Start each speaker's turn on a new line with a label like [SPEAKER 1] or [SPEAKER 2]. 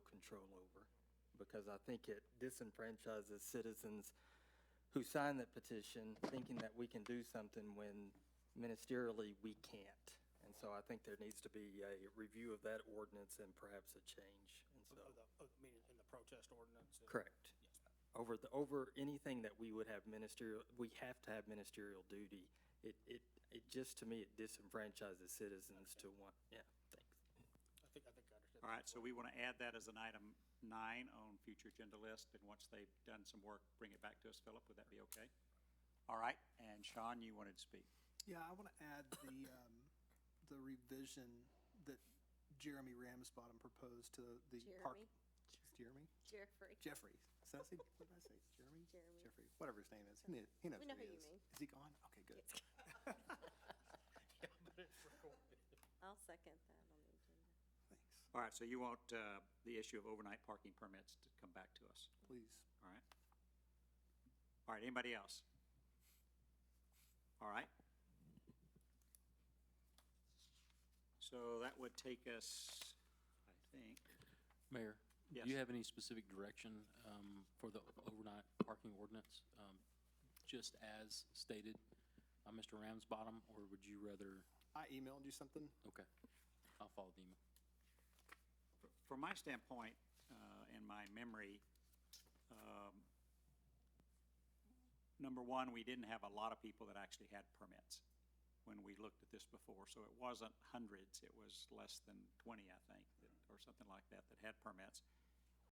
[SPEAKER 1] control over, because I think it disenfranchises citizens who sign that petition thinking that we can do something when ministerially we can't. And so I think there needs to be a review of that ordinance and perhaps a change, and so,
[SPEAKER 2] Of of the, of, I mean, in the protest ordinance? and-
[SPEAKER 1] correct.
[SPEAKER 2] Yes.
[SPEAKER 1] Over the, over anything that we would have ministerial, we have to have ministerial duty. It, it, it just, to me, it disenfranchises citizens to want, yeah, thanks.
[SPEAKER 2] I think, I think I understand.
[SPEAKER 3] All right, so we want to add that as an item nine on future agenda list, and once they've done some work, bring it back to us, Philip, would that be okay? All right, and Sean, you wanted to speak.
[SPEAKER 4] Yeah, I want to add the, um, the revision that Jeremy Ramsbottom proposed to the park.
[SPEAKER 5] Jeremy.
[SPEAKER 4] Jeremy?
[SPEAKER 5] Jeffrey.
[SPEAKER 4] Jeffrey. Did I say, what did I say? Jeremy?
[SPEAKER 5] Jeremy.
[SPEAKER 4] Jeffrey, whatever his name is. He kn- He knows
[SPEAKER 5] We know
[SPEAKER 4] who he
[SPEAKER 5] who
[SPEAKER 4] is.
[SPEAKER 5] you mean.
[SPEAKER 4] Is he gone? Okay, good.
[SPEAKER 5] Yes. I'll second that on the agenda.
[SPEAKER 4] Thanks.
[SPEAKER 3] All right, so you want, uh, the issue of overnight parking permits to come back to us,
[SPEAKER 4] Please.
[SPEAKER 3] all right? All right, anybody else? All right. So that would take us, I think,
[SPEAKER 6] Mayor?
[SPEAKER 3] Yes.
[SPEAKER 6] Do you have any specific direction um, for the overnight parking ordinance, um, just as stated by Mr. Ramsbottom, or would you rather,
[SPEAKER 4] I emailed you something.
[SPEAKER 6] okay, I'll follow the email.
[SPEAKER 3] from my standpoint, uh, and my memory, um, number one, we didn't have a lot of people that actually had permits when we looked at this before, so it wasn't hundreds, it was less than twenty, I think, that- or something like that, that had permits.